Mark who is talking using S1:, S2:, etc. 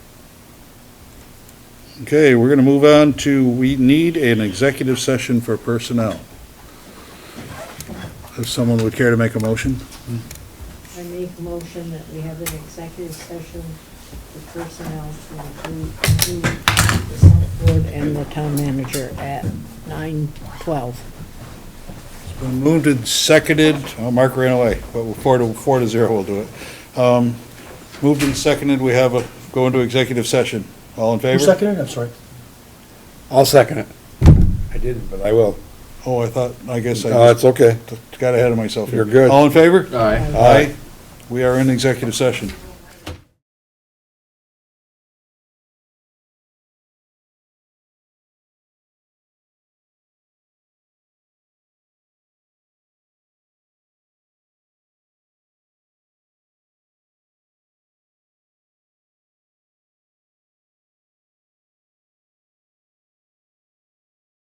S1: Okay, we're gonna move on to, we need an executive session for personnel. If someone would care to make a motion?
S2: I make a motion that we have an executive session for personnel to include include the select board and the town manager at nine twelve.
S1: It's been moved and seconded, oh, Mark ran away, but we're four to, four to zero, we'll do it. Um, Moved and seconded, we have a, go into executive session. All in
S3: Who
S1: favor?
S3: seconded it? I'm sorry.
S4: I'll second it. I didn't, but I will.
S1: Oh, I thought, I guess
S4: No,
S1: I
S4: it's okay.
S1: just got ahead of myself here.
S4: You're good.
S1: All in favor?
S4: Aye.
S1: Aye. We are in executive session.